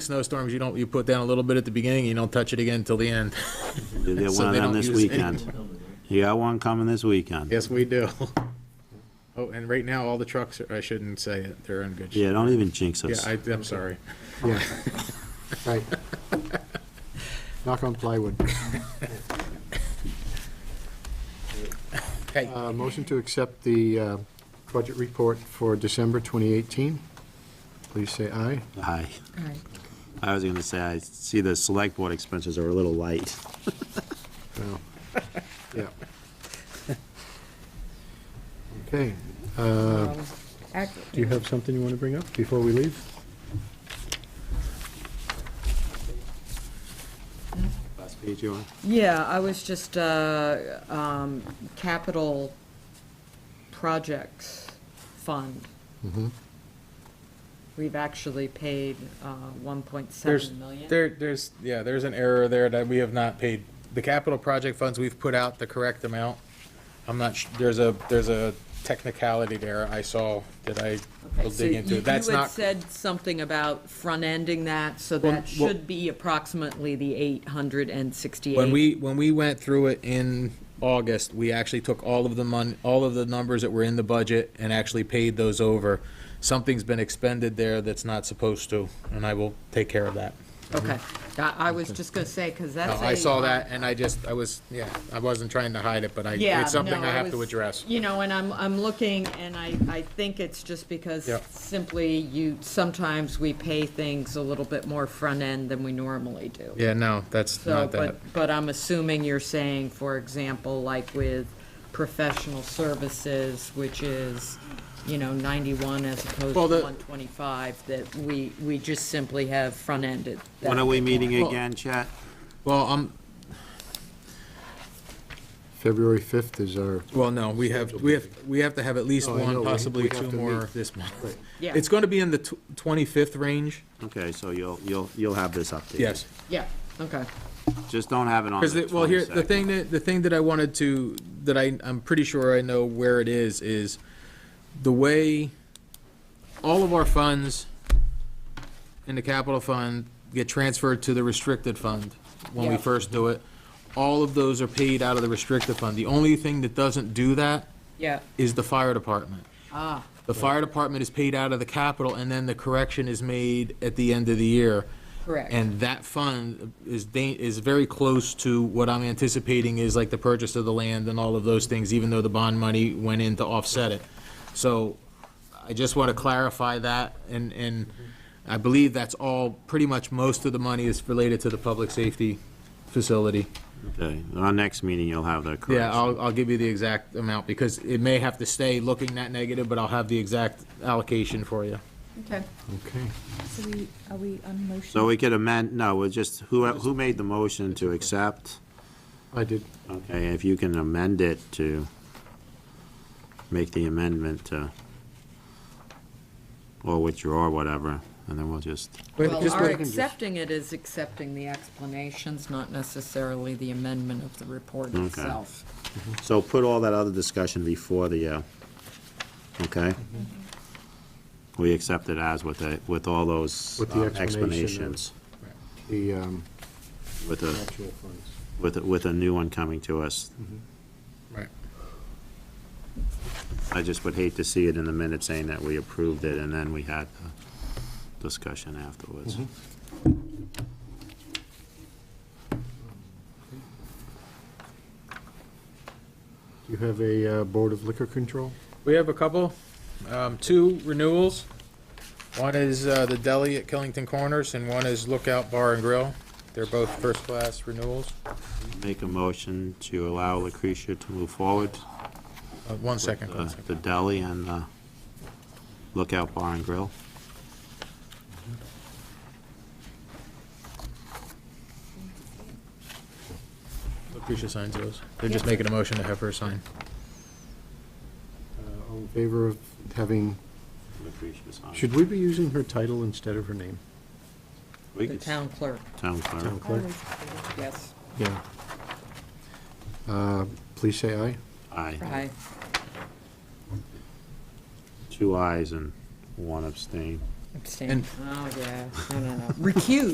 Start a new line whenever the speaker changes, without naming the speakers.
snowstorms, you don't, you put down a little bit at the beginning, and you don't touch it again until the end.
Did they
So
want
they
it on
don't
this
use it
weekend? You got one coming this weekend?
Yes, we do. Oh, and right now, all the trucks, are- I shouldn't say it, they're in good shape.
Yeah, don't even jinx
Yeah,
us.
I, I'm sorry.
Yeah. Right. Knock on plywood.
Hey,
Uh, Motion to accept the uh, budget report for December 2018. Please say aye.
Hi. I was gonna say, I see the select board expenses are a little light.
No. Yeah. Okay. uh, Do you have something you want to bring up before we leave?
Last page you want?
Yeah, I was just, uh, um, capital projects fund. We've actually paid, uh, one point
There's,
seven million.
there, there's, yeah, there's an error there that we have not paid. The capital project funds, we've put out the correct amount. I'm not, sh- there's a, there's a technicality there I saw that I
Okay,
will
so
dig into.
you-
That's
You had
not,
said something about front-ending that, so
Well,
that
well-
should be approximately the eight hundred and sixty-eight.
when we, when we went through it in August, we actually took all of the mon, all of the numbers that were in the budget and actually paid those over. Something's been expended there that's not supposed to, and I will take care of that.
Okay, I, I was just gonna say, because
Mhm. No,
that's a.
I saw that, and I just, I was, yeah, I wasn't trying to hide it, but I,
Yeah,
it's something
no,
I have to
was-
address.
You know, and I'm, I'm looking, and I, I think it's just because
Yep.
simply you, sometimes we pay things a little bit more front-end than we normally do.
Yeah, no, that's
So,
not that.
but, but I'm assuming you're saying, for example, like with professional services, which is, you know, 91 as opposed to
Well, the-
125, that we, we just simply have front-ended. that.
When are we meeting
Well-
again, Chet?
Well, um, I'm,
February 5th is our,
well, no, we have, we have, we have to have at least
Oh, I know,
one,
we-
possibly
we have
two
to
more
meet.
this month.
Right.
Yeah.
It's gonna be in the tw- twenty-fifth range,
Okay, so you'll, you'll, you'll have this updated.
yes.
Yeah, okay.
Just don't have it on the
Because, well, here, the
22nd.
thing that, the thing that I wanted to, that I, I'm pretty sure I know where it is, is the way all of our funds in the capital fund get transferred to the restricted fund when we
Yeah.
first do it. All of those are paid out of the restricted fund. The only thing that doesn't do that
Yeah,
is the fire department.
ah,
The fire department is paid out of the capital, and then the correction is made at the end of the year.
correct.
And that fund is, da- is very close to what I'm anticipating is like the purchase of the land and all of those things, even though the bond money went in to offset it. So I just want to clarify that, and, and I believe that's all, pretty much most of the money is related to the public safety facility.
Okay, our next meeting you'll have the correction.
Yeah, I'll, I'll give you the exact amount, because it may have to stay looking that negative, but I'll have the exact allocation for you.
Okay.
okay.
So we, are we on motion?
So we could amend, no, we're just, who, who made the motion to accept?
I did,
Okay, if you can amend it to make the amendment to, or withdraw, whatever, and then we'll just,
Well,
Just
our
with-
accepting it is accepting the explanations, not necessarily the amendment of the report
Okay.
itself.
so put all that other discussion before the, uh, okay? We accept it as with the, with all those
With the
uh,
explanation of-
explanations,
the um,
with a,
actual funds. Mm-hmm.
with, a- with a new one coming to us.
Right.
I just would hate to see it in the minutes saying that we approved it, and then we had the discussion afterwards.
Mm-hmm. Do you have a uh, Board of Liquor Control?
We have a couple, um, two renewals. One is, uh, the deli at Killington Corners and one is Lookout Bar and Grill. They're both first-class renewals.
Make a motion to allow Lucretia to move forward,
Uh, one second, one
uh,
second.
the deli and the Lookout Bar and Grill.
Lucretia signs those. They're just making a motion to have her sign.
Uh, All in favor of having,
Lucretia's on.
should we be using her title instead of her name?
We
The
could-
town clerk,
Town clerk.
I was-
yes.
Yeah. Uh, Please say aye.
Aye.
Aye.
Two ayes and one abstain.
Abstain. Oh, yeah, no, no, no. Recuse.